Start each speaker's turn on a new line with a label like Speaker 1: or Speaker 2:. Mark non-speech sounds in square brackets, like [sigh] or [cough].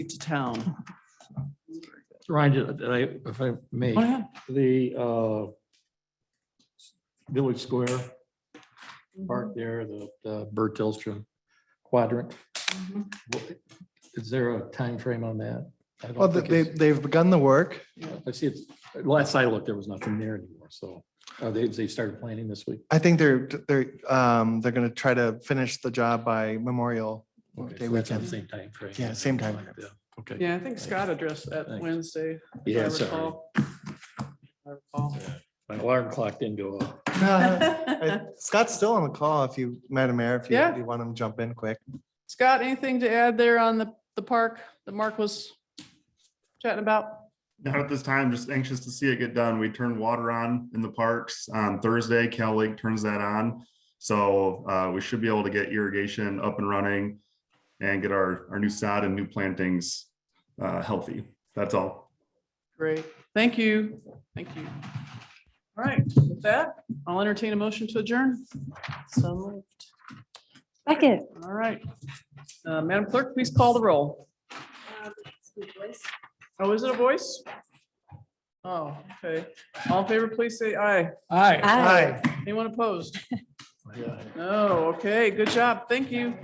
Speaker 1: to town.
Speaker 2: Ryan, did- did I- if I may,
Speaker 1: Go ahead.
Speaker 2: the uh, Village Square
Speaker 1: Mm-hmm.
Speaker 2: part there, the the Bert Delstrom quadrant,
Speaker 1: Mhm.
Speaker 2: wha- is there a time frame on that? I don't
Speaker 3: Well, they,
Speaker 2: think
Speaker 3: they-
Speaker 2: it's-
Speaker 3: they've begun the work.
Speaker 2: I see, it's- last I looked, there was nothing there anymore, so uh, they, they started planning this week.
Speaker 3: I think they're, they're, um, they're gonna try to finish the job by Memorial.
Speaker 2: Okay,
Speaker 3: Day
Speaker 2: so that's on
Speaker 3: weekend.
Speaker 2: the Same time frame.
Speaker 3: Yeah, same time.
Speaker 2: Yeah, Okay.
Speaker 1: Yeah, I think Scott addressed that
Speaker 2: Thanks.
Speaker 1: Wednesday. if I
Speaker 2: Yeah,
Speaker 1: [laughs]
Speaker 2: sorry.
Speaker 1: recall. I recall.
Speaker 2: My alarm clock didn't go off.
Speaker 3: Uh, I- Scott's still on the call if you, Madam Mayor, if you
Speaker 1: Yeah.
Speaker 3: you want him to jump in quick.
Speaker 1: [laughs] Scott, anything to add there on the, the park that Mark was chatting about?
Speaker 4: Not at this time, just anxious to see it get done. We turn water on in the parks on Thursday. Cal Lake turns that on. So uh, we should be able to get irrigation up and running and get our, our new sod and new plantings uh, healthy. That's all.
Speaker 1: Great, thank you, thank you. All right, with that, I'll entertain a motion to adjourn. So moved.
Speaker 5: Second.
Speaker 1: All right. Uh, Madam Clerk, please call the roll. Oh, is it a voice? Oh, okay. All in favor, please say aye.
Speaker 2: Aye.
Speaker 5: Aye.
Speaker 1: Anyone opposed? No, okay, good job, thank you.